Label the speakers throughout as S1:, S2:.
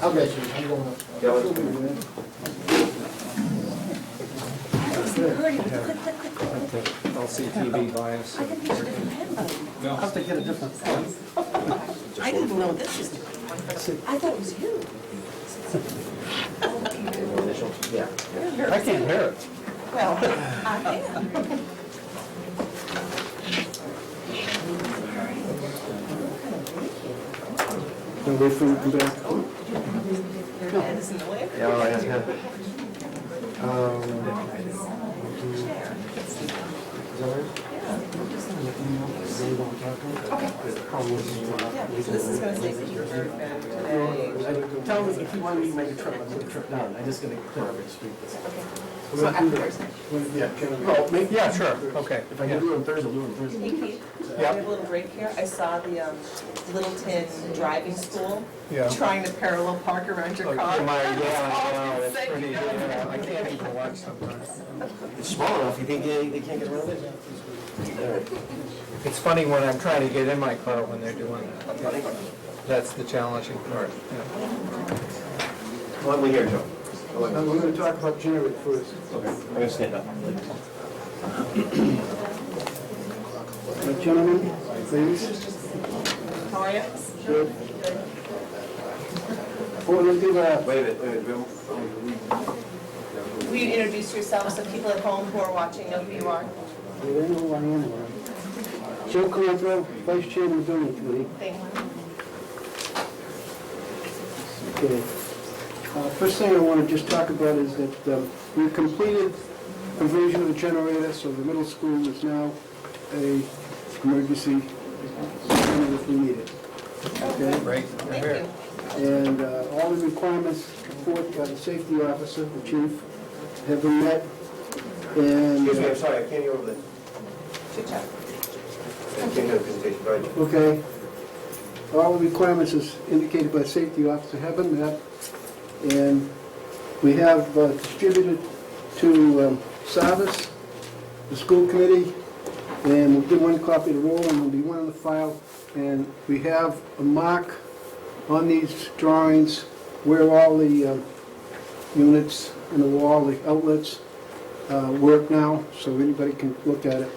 S1: I bet you, I'm going up.
S2: Yeah, let's
S3: Hurry, quick, quick, quick, quick.
S2: LCTV bias.
S3: I think there's a different pen button.
S2: No.
S4: Have to get a different one.
S3: I didn't know this was, I thought it was you.
S2: Initial, yeah.
S4: I can't hear it.
S3: Well, I am.
S4: Can wait for you to come back?
S3: Your head is in the way.
S2: Yeah, all right, yeah. Um, is that right?
S3: This is gonna say that you heard back today.
S4: Tell me if you want me to make a trip, I'll make a trip down. I just gotta clear up the street.
S3: So afterwards,
S1: Yeah, can we-
S4: Oh, maybe, yeah, sure, okay.
S1: If I can do it on Thursday, I'll do it on Thursday.
S3: hey Keith, we have a little break here. I saw the um, Littleton Driving School
S4: Yeah.
S3: trying to parallel park around your
S2: Oh,
S3: car.
S2: my, yeah, I know, that's
S3: Say
S2: pretty,
S3: no.
S2: yeah, I can't even watch sometimes.
S1: It's small enough, you think they, they can't get around it?
S2: It's funny when I'm trying to get in my car when they're doing that. That's the challenging part, yeah.
S1: Let me hear, Joe.
S5: And we're going to talk about generic first.
S1: Okay, I'm gonna stand up.
S5: Uh, Gentlemen, ladies,
S3: How are you?
S5: good. Before we do that,
S1: Wait a minute, wait a minute, we-
S3: Will you introduce yourself so people at home who are watching know who you are?
S5: they don't know who I am. right? Joe Calandra, Vice Chairman of the Building Committee.
S3: Thank you.
S5: Okay. Uh, First thing I want to just talk about is that um, we've completed conversion of the generator, so the middle school is now a emergency, center if we need it. Okay?
S2: Right,
S3: Thank
S2: here.
S3: you.
S5: And uh, all the requirements put by the safety officer, the chief, have been met. And,
S1: Excuse me, I'm
S5: uh,
S1: sorry, I can't hear over the,
S3: Good job.
S1: I can't hear the presentation, go ahead.
S5: okay, all the requirements as indicated by safety officer have been met. And we have uh, distributed to um, Sarvis, the school committee, and we'll give one copy to Roland, there'll be one in the file. And we have a mark on these drawings where all the um, units in the wall, the outlets, uh, work now, so anybody can look at it.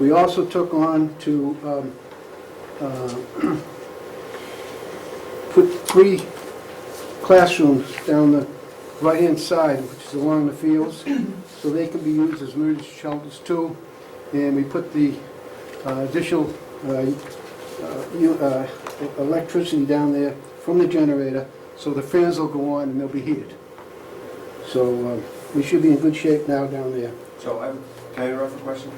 S5: We also took on to um, uh, put three classrooms down the right-hand side, which is along the fields, so they can be used as emergency shelters too. And we put the uh, additional uh, uh, u- uh, electricity down there from the generator, so the fans will go on and they'll be heated. So uh, we should be in good shape now down there.
S1: So I'm, can I interrupt for a question?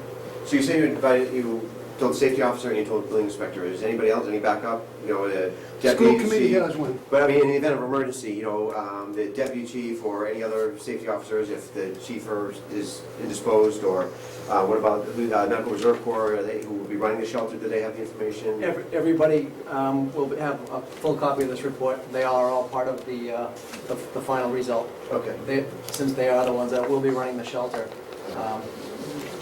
S1: So you say you invited, you told the safety officer and you told the building inspector, is anybody else, any backup? You know, the
S5: School
S1: deputy
S5: committee
S1: chief?
S5: has one.
S1: But I mean, in the event of emergency, you know, um, the deputy chief or any other safety officers, if the chief or- is indisposed, or uh, what about the uh, medical reserve corps, are they, who will be running the shelter, do they have the information?
S4: Every- Everybody um, will have a full copy of this report. They are all part of the, uh, the the final result.
S1: Okay,
S4: They- Since they are the ones that will be running the shelter, um,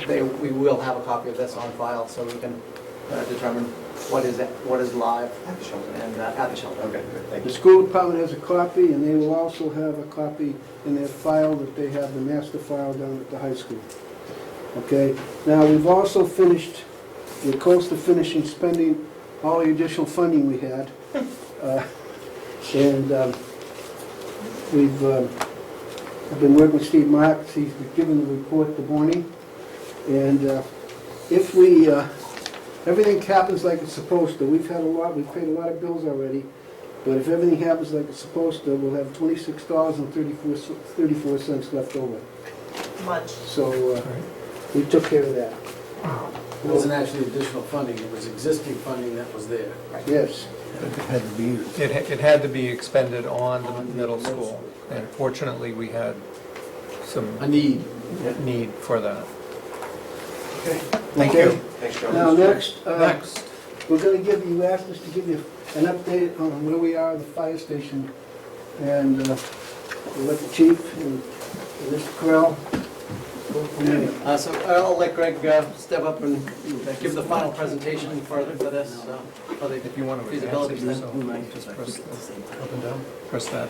S4: they, we will have a copy of this on file so we can uh, determine what is, what is live
S1: Have the shelter.
S4: and uh, at the shelter.
S1: Okay, good, thank
S5: The
S1: you.
S5: school department has a copy, and they will also have a copy in their file that they have, the master file down at the high school. Okay? Now, we've also finished, we're close to finishing spending all the additional funding we had. Uh, And um, we've, um, I've been working with Steve Marks, he's given the report the morning. And uh, if we, uh, everything happens like it's supposed to, we've had a lot, we've paid a lot of bills already, but if everything happens like it's supposed to, we'll have twenty-six dollars and thirty-four, thirty-four cents left over.
S3: Much.
S5: So, uh, we took care of that.
S6: It wasn't actually additional funding, it was existing funding that was there.
S5: Yes,
S2: It, ha- it had to be expended on the middle school, and fortunately, we had
S6: A
S2: some
S6: need.
S2: need for that.
S5: Thank you.
S1: Thanks, John.
S5: now next, uh,
S2: Next,
S5: we're gonna give you, you asked us to give you an update on where we are at the fire station. And, uh, we let the chief and Mr. Correll. go from there.
S4: Uh, So I'll let Greg uh, step up and give the final presentation for for this, uh, for the
S2: if you want to advance
S4: feasibility
S2: it
S4: study.
S2: yourself, just press that. Press that.